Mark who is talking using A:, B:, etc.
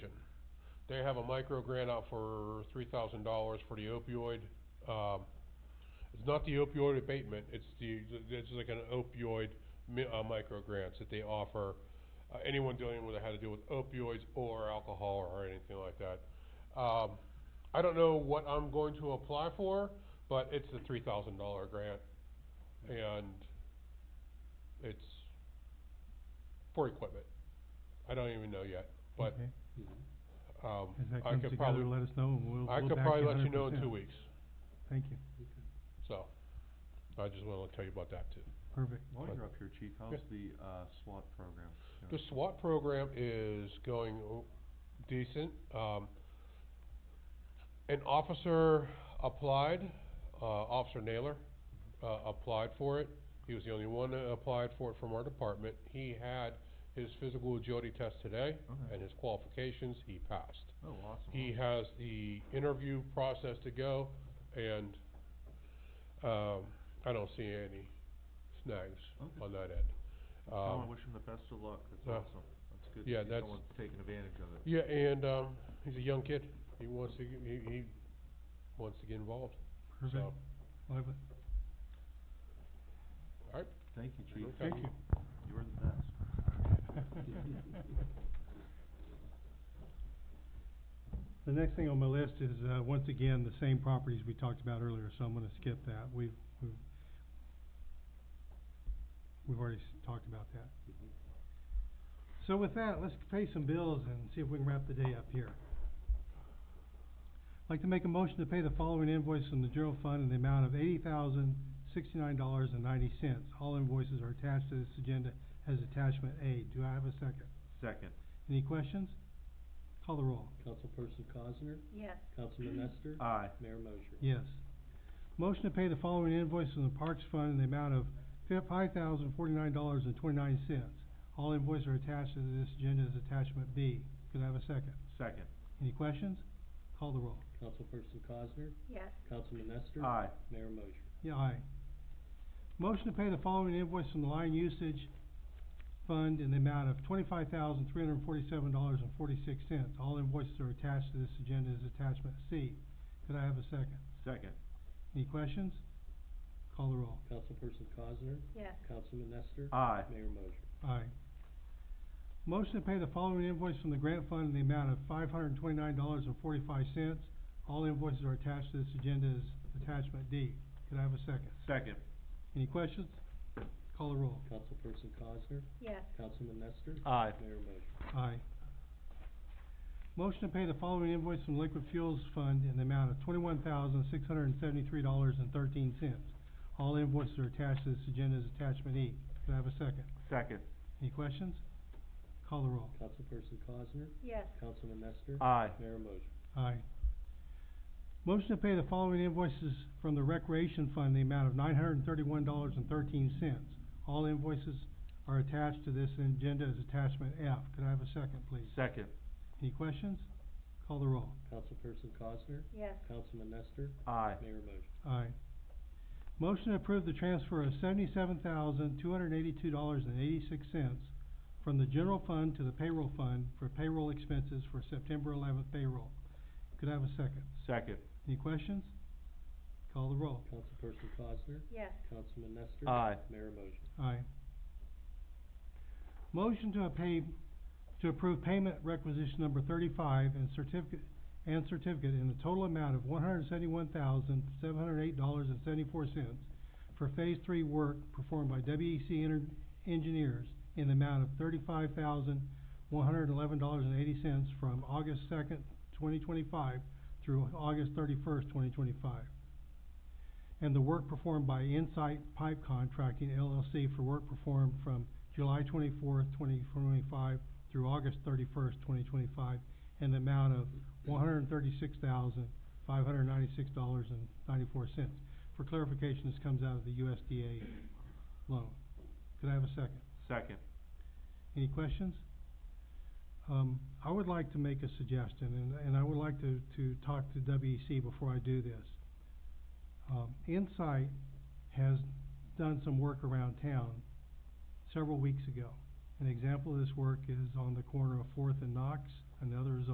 A: they have a micro grant out for three thousand dollars for the opioid, um, it's not the opioid abatement, it's the, it's like an opioid mi- uh, micro grants that they offer, uh, anyone dealing with, it had to do with opioids or alcohol or anything like that. Um, I don't know what I'm going to apply for, but it's a three thousand dollar grant, and it's for equipment. I don't even know yet, but,
B: Okay.
A: um,
B: As that
A: I
B: comes
A: could
B: together,
A: probably,
B: let us know and we'll,
A: I
B: we'll
A: could
B: back
A: probably
B: you
A: let you know in
B: 100%.
A: two weeks,
B: Thank you,
A: so, I just wanna tell you about that too.
B: perfect.
C: While you're up here, Chief, how's the, uh, SWAT program?
A: The
C: doing?
A: SWAT program is going o- decent. Um, an officer applied, uh, Officer Naylor, uh, applied for it. He was the only one that applied for it from our department. He had his physical agility test today
C: Okay.
A: and his qualifications, he passed.
C: Oh, awesome.
A: He has the interview process to go and, um, I don't see any snags
C: Okay.
A: on that end.
C: Tell him I
A: uh, Um,
C: wish him the best of luck. That's
A: uh,
C: awesome. That's good to
A: yeah,
C: see
A: that's-
C: someone taking advantage of it.
A: Yeah, and, um, he's a young kid, he wants to, get- he, he wants to get involved,
B: Perfect.
A: so,
B: We'll have a-
A: alright,
C: Thank you, Chief.
A: Thank
B: you.
C: You're the best.
B: The next thing on my list is, uh, once again, the same properties we talked about earlier, so I'm gonna skip that. We've, we've, we've already s- talked about that. So with that, let's pay some bills and see if we can wrap the day up here. I'd like to make a motion to pay the following invoice from the general fund in the amount of eighty thousand, sixty-nine dollars and ninety cents. All invoices are attached to this agenda as attachment A. Do I have a second?
C: Second,
B: Any questions? Call the roll.
D: Councilperson Cosner,
E: Yes,
D: Councilman Nestor,
C: aye.
D: Mayor Mosher.
B: Yes. Motion to pay the following invoice from the Parks Fund in the amount of five thousand forty-nine dollars and twenty-nine cents. All invoices are attached to this agenda as attachment B. Could I have a second?
C: Second,
B: Any questions? Call the roll.
D: Councilperson Cosner,
E: yes,
D: Councilman Nestor.
C: aye.
D: Mayor Mosher.
B: Yeah, aye. Motion to pay the following invoice from the Line Usage Fund in the amount of twenty-five thousand three hundred and forty-seven dollars and forty-six cents. All invoices are attached to this agenda as attachment C. Could I have a second?
C: Second,
B: Any questions? Call the roll.
D: Councilperson Cosner,
E: yes,
D: Councilman Nestor.
C: aye.
D: Mayor Mosher.
B: Aye. Motion to pay the following invoice from the grant fund in the amount of five hundred and twenty-nine dollars and forty-five cents. All invoices are attached to this agenda as attachment D. Could I have a second?
C: Second,
B: Any questions? Call the roll.
D: Councilperson Cosner,
E: yes,
D: Councilman Nestor.
C: aye.
D: Mayor Mosher.
B: Aye. Motion to pay the following invoice from Liquid Fuels Fund in the amount of twenty-one thousand, six hundred and seventy-three dollars and thirteen cents. All invoices are attached to this agenda as attachment E. Could I have a second?
C: Second,
B: Any questions? Call the roll.
D: Councilperson Cosner,
E: yes,
D: Councilman Nestor.
C: aye.
D: Mayor Mosher.
B: Aye. Motion to pay the following invoices from the Recreation Fund, in the amount of nine hundred and thirty-one dollars and thirteen cents. All invoices are attached to this agenda as attachment F. Could I have a second, please?
C: Second,
B: Any questions? Call the roll.
D: Councilperson Cosner,
E: yes,
D: Councilman Nestor.
C: aye.
D: Mayor Mosher.
B: Aye. Motion to approve the transfer of seventy-seven thousand, two hundred and eighty-two dollars and eighty-six cents from the general fund to the payroll fund for payroll expenses for September eleventh payroll. Could I have a second?
C: Second,
B: Any questions? Call the roll.
D: Councilperson Cosner,
E: yes,
D: Councilman Nestor.
C: Aye.
D: Mayor Mosher.
B: Aye. Motion to pay, to approve payment requisition number thirty-five and certificate, and certificate in a total amount of one hundred seventy-one thousand, seven hundred eight dollars and seventy-four cents for phase three work performed by WEC Ener- Engineers in the amount of thirty-five thousand, one hundred eleven dollars and eighty cents from August second, twenty twenty-five through August thirty-first, twenty twenty-five and the work performed by Insight Pipe Contracting LLC for work performed from July twenty-fourth, twenty twenty-five through August thirty-first, twenty twenty-five, in the amount of one hundred and thirty-six thousand, five hundred and ninety-six dollars and ninety-four cents. For clarification, this comes out of the USDA loan. Could I have a second?
C: second,
B: Any questions? Um, I would like to make a suggestion, and, and I would like to, to talk to WEC before I do this. Um, Insight has done some work around town several weeks ago. An example of this work is on the corner of Fourth and Knox, another is